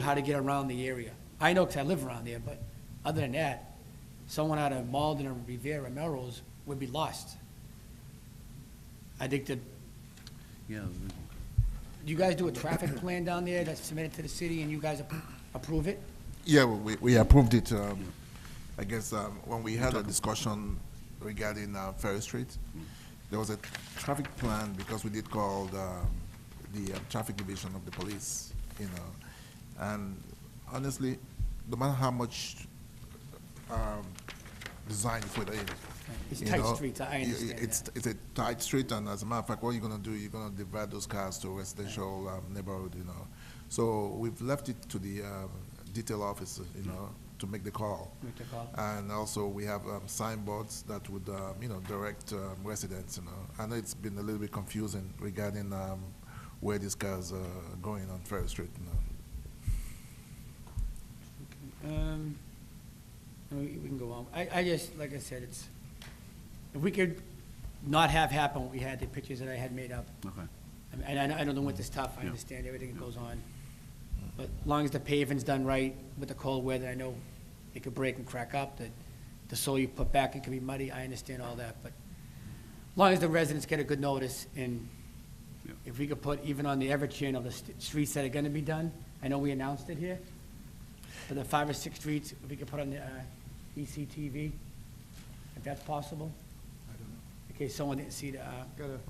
how to get around the area. I know because I live around there, but other than that, someone out of Malden or Rivera, Melrose would be lost. I think that, Yeah, you guys do a traffic plan down there that's submitted to the city and you guys appro- approve it? Yeah, well, we, we approved it, um, I guess, um, when we had a discussion regarding, uh, Ferry Street. There was a traffic plan because we did call, um, the uh, traffic division of the police, you know. And honestly, no matter how much, um, design you put in. It's you tight know, streets, I you- understand that. It's, it's a tight street, and as a matter of fact, what you're gonna do, you're gonna divide those cars to residential um, neighborhood, you know. So we've left it to the um, detail officer, you know, to make the call. Make the call. And also, we have um, signboards that would, um, you know, direct um, residents, you know. I know it's been a little bit confusing regarding um, where these cars are going on Ferry Street, you know. Um, no, we we can go on. I, I just, like I said, it's, if we could not have happen what we had, the pictures that I had made up. okay. I mean, And I, I know the winter's tough, I Yeah. understand everything that goes on. But as long as the paving's done right with the cold weather, I know it could break and crack up, that the soil you put back, it could be muddy, I understand all that, but as long as the residents get a good notice, and Yeah. if we could put even on the ever channel, the st- streets that are gonna be done, I know we announced it here, for the five or six streets, if we could put on the uh, ECTV, if that's possible, I don't know. in case someone didn't see the, uh, Gotta,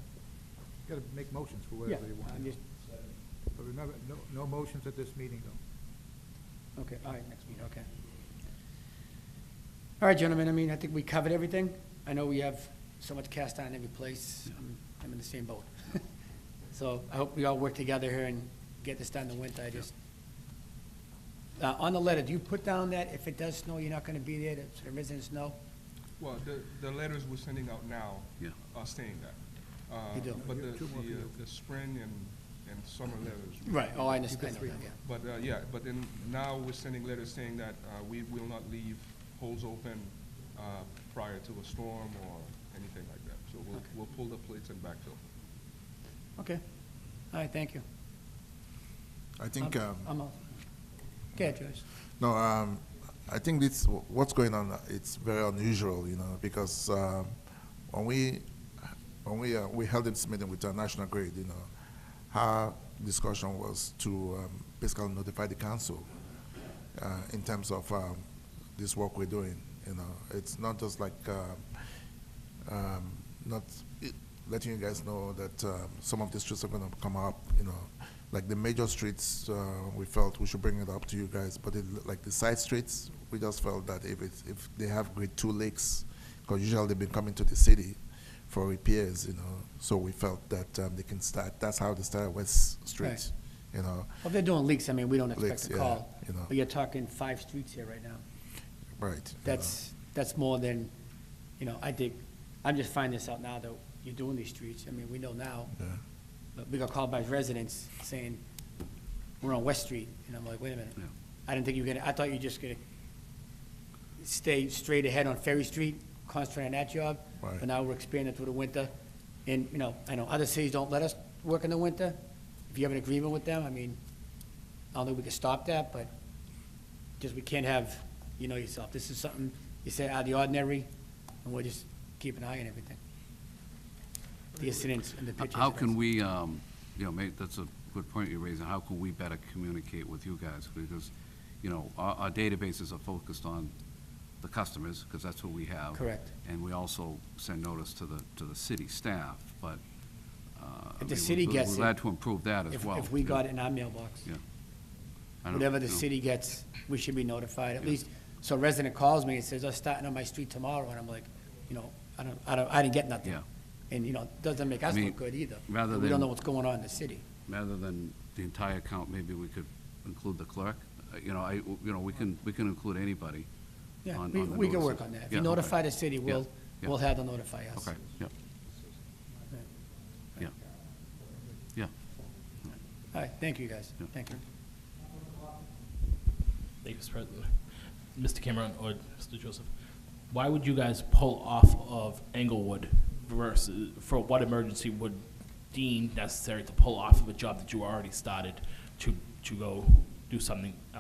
gotta make motions for yeah, whatever they want. I'm just- But remember, no, no motions at this meeting, though. Okay, all right, next meeting, okay. All right, gentlemen, I mean, I think we covered everything. I know we have so much cast iron every place. I'm- I'm in the same boat. So I hope we all work together here and get this done in the winter, I just. Uh, on the letter, do you put down that if it does snow, you're not gonna be there, that so the residents know? Well, the, the letters we're sending out now Yeah. are saying that. Uh, You do. But the, Two more for the, uh, you. the spring and, and summer letters. we- Oh, I understand, I know that, yeah. But, uh, yeah, but then now we're sending letters saying that, uh, we will not leave holes open, uh, prior to a storm or anything like that. So we'll, Okay. we'll pull the plates and backfill. Okay, all right, thank you. I think, I'm- um, I'm all. Go ahead, Joyce. No, um, I think this, what's going on, it's very unusual, you know, because, um, when we, when we, uh, we held this meeting with uh, National Grid, you know, our discussion was to, um, basically notify the council, uh, in terms of, um, this work we're doing, you know, it's not just like, uh, um, not it- letting you guys know that, um, some of the streets are gonna come up, you know, like the major streets, uh, we felt we should bring it up to you guys, but it, like the side streets, we just felt that if it's, if they have grade two leaks, because usually they've been coming to the city for repairs, you know, so we felt that, um, they can start, that's how they started West Street, Right. you know, Well, if they're doing leaks, I mean, we don't Leaks, expect a yeah, call. you know. But you're talking five streets here right now. right. you know. That's, that's more than, you know, I think, I'm just finding this out now that you're doing these streets. I mean, we know now, Yeah. but we got called by residents saying, we're on West Street, and I'm like, wait a minute. Yeah. I didn't think you were gonna, I thought you were just gonna stay straight ahead on Ferry Street, concentrate on that job. Right. But now we're expanding through the winter, and, you know, I know other cities don't let us work in the winter. If you have an agreement with them, I mean, I don't think we can stop that, but just we can't have, you know yourself, this is something you say out of the ordinary, and we'll just keep an eye on everything. The incidents and the H- pictures. How can we, um, you know, mate, that's a good point you're raising, how can we better communicate with you guys? Because, you know, our, our databases are focused on the customers, because that's what we have. Correct. And we also send notice to the, to the city staff, but, uh. I If the mean, we're- city gets We're it, glad to improve that as If, well. if we you know. got it in our mailbox. Yeah. I don't- Whatever the you know, city gets, we should be notified, at Yeah. least, so a resident calls me and says, I'm starting on my street tomorrow, and I'm like, you know, I don't, I don't, I didn't get nothing. Yeah. And, you know, doesn't make us I mean, look good either. rather We don't than- know what's going on in the city. Rather than the entire account, maybe we could include the clerk, Uh, you know, I, you know, we can, we can include anybody. Yeah, on- we, on the we can notices. work on that. If you Yeah, okay. notify the city, we'll, yeah. we'll have them notify us. Okay, yeah. Yeah. Yeah. All right, thank you, guys. Yeah. Thank you. Thank you, Mr. President. Mr. Cameron or Mr. Joseph, why would you guys pull off of Englewood versus, for what emergency would deem necessary to pull off of a job that you already started to, to go do something